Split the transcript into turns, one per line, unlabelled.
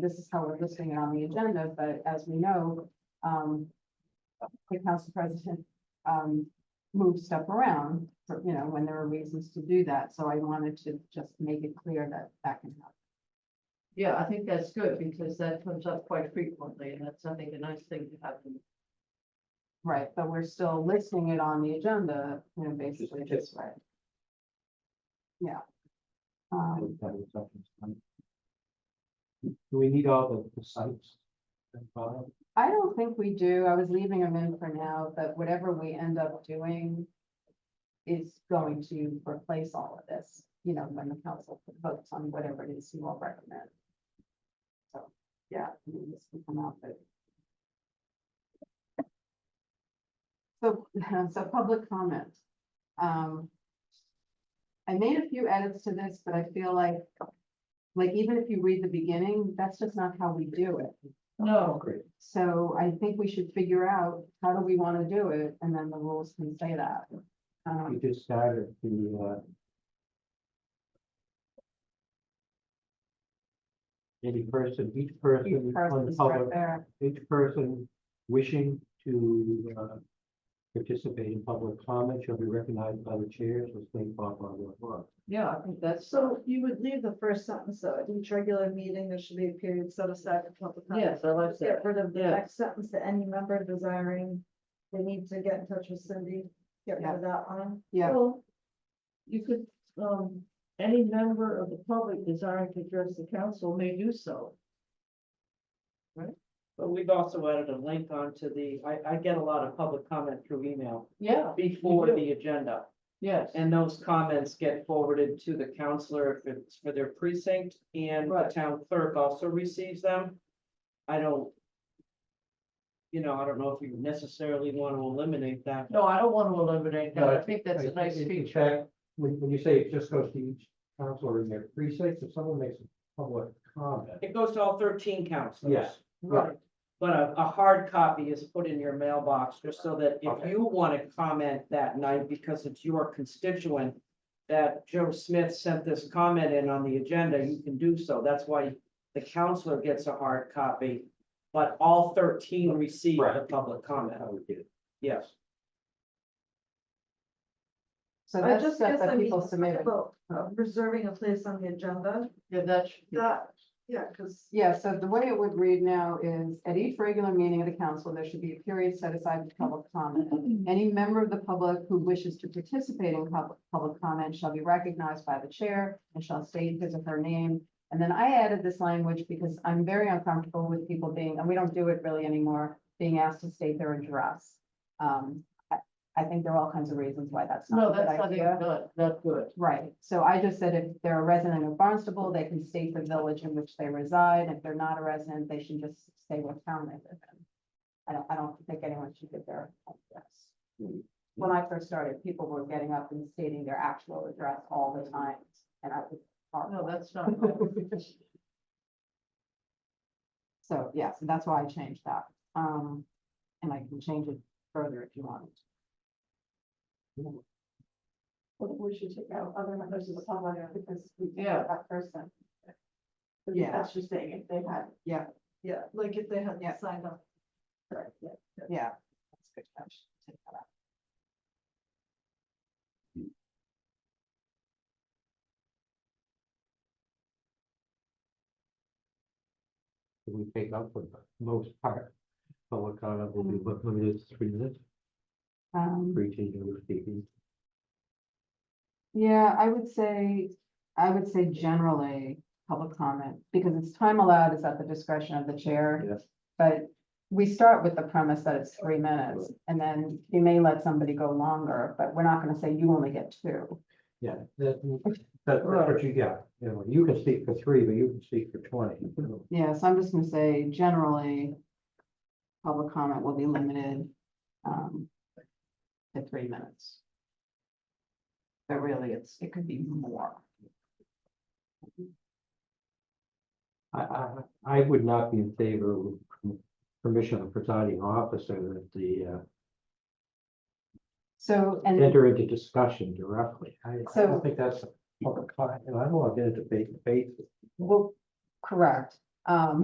this is how we're listing it on the agenda, but as we know, um, the council president, um, moves stuff around, for, you know, when there are reasons to do that. So I wanted to just make it clear that that can happen.
Yeah, I think that's good because that comes up quite frequently and that's, I think, a nice thing to have. in-
Right, but we're still listing it on the agenda, you know, basically this way. Yeah. Um,
Do we need all the- the sites? and file?
I don't think we do. I was leaving them in for now, but whatever we end up doing is going to replace all of this, you know, when the council votes on whatever it is you all recommend. So, yeah, I mean, this can come out, but. So, so public comment. Um, I made a few edits to this, but I feel like, like even if you read the beginning, that's just not how we do it.
No,
Great.
So I think we should figure out how do we want to do it, and then the rules can say that.
We
Um,
just started the, uh, any person, each
each
person on the
person's right
public,
there,
each person wishing to, uh, participate in public comment shall be recognized by the chairs, let's think, blah, blah, blah, blah.
yeah, I think that's,
So you would leave the first sentence, though, at each regular meeting, there should be a period set aside for public comment.
yes, I like
Just
that.
Get rid of the
Yeah.
next sentence, that any member desiring, they need to get in touch with Cindy, get rid of that one.
yeah,
Well, You could, um, any member of the public desiring to address the council may do so. Right?
But we've also added a link onto the, I, I get a lot of public comment through email
Yeah,
before
do.
the agenda.
yes.
And those comments get forwarded to the counselor if it's for their precinct and the
Right.
town clerk also receives them. I don't. You know, I don't know if you necessarily want to eliminate that.
No, I don't want to eliminate that.
No,
I think that's a
Right,
nice
in- in
feature.
fact, When, when you say it just goes to each counselor in their precinct, if someone makes a public comment.
It goes to all thirteen counselors.
Yes.
Right,
But a, a hard copy is put in your mailbox, just so that if
Okay.
you want to comment that night, because it's your constituent. That Joe Smith sent this comment in on the agenda, you can do so, that's why the counselor gets a hard copy. But all thirteen receive the
Right.
public comment,
I would get it.
yes,
so
I
that's
just
stuff
guess
that
I mean,
people submit.
about uh, reserving a place on the agenda,
yeah, that's,
that, yeah, because.
Yeah, so the way it would read now is, at each regular meeting of the council, there should be a period set aside for public comment. Any member of the public who wishes to participate in public, public comment shall be recognized by the chair and shall state his or her name. And then I added this language because I'm very uncomfortable with people being, and we don't do it really anymore, being asked to state their address. Um, I, I think there are all kinds of reasons why that's not
no,
a
that's,
good
I think,
idea.
not, not good.
Right, so I just said if they're a resident of Barnstable, they can state the village in which they reside. If they're not a resident, they should just say what town they live in. I don't, I don't think anyone should give their address. When I first started, people were getting up and stating their actual address all the time, and I was.
No, that's not. good.
So, yeah, so that's why I changed that. Um, and I can change it further if you want.
We should take out other members of the public, because we
Yeah.
that person.
Yeah.
just saying if they had.
Yeah.
Yeah, like if they had
Yeah.
signed up.
Right, Yeah. That's a good catch. Take that out.
We take up for the most part, public comment will be limited to three minutes,
Um,
three changes speaking.
Yeah, I would say, I would say generally, public comment, because it's time allowed is at the discretion of the chair.
Yes.
But we start with the premise that it's three minutes, and then you may let somebody go longer, but we're not gonna say you only get two.
Yeah, that, that's what you got, you know, you can speak for three, but you can speak for twenty.
Yeah, so I'm just gonna say generally, public comment will be limited, um, to three minutes. But really, it's, it could be more.
I, I, I would not be in favor of permission of presiding officer that the,
So,
uh,
and.
enter into discussion directly. I, I
So-
don't think that's a public comment, and I don't want to get into debate, debate
Well, correct. Um,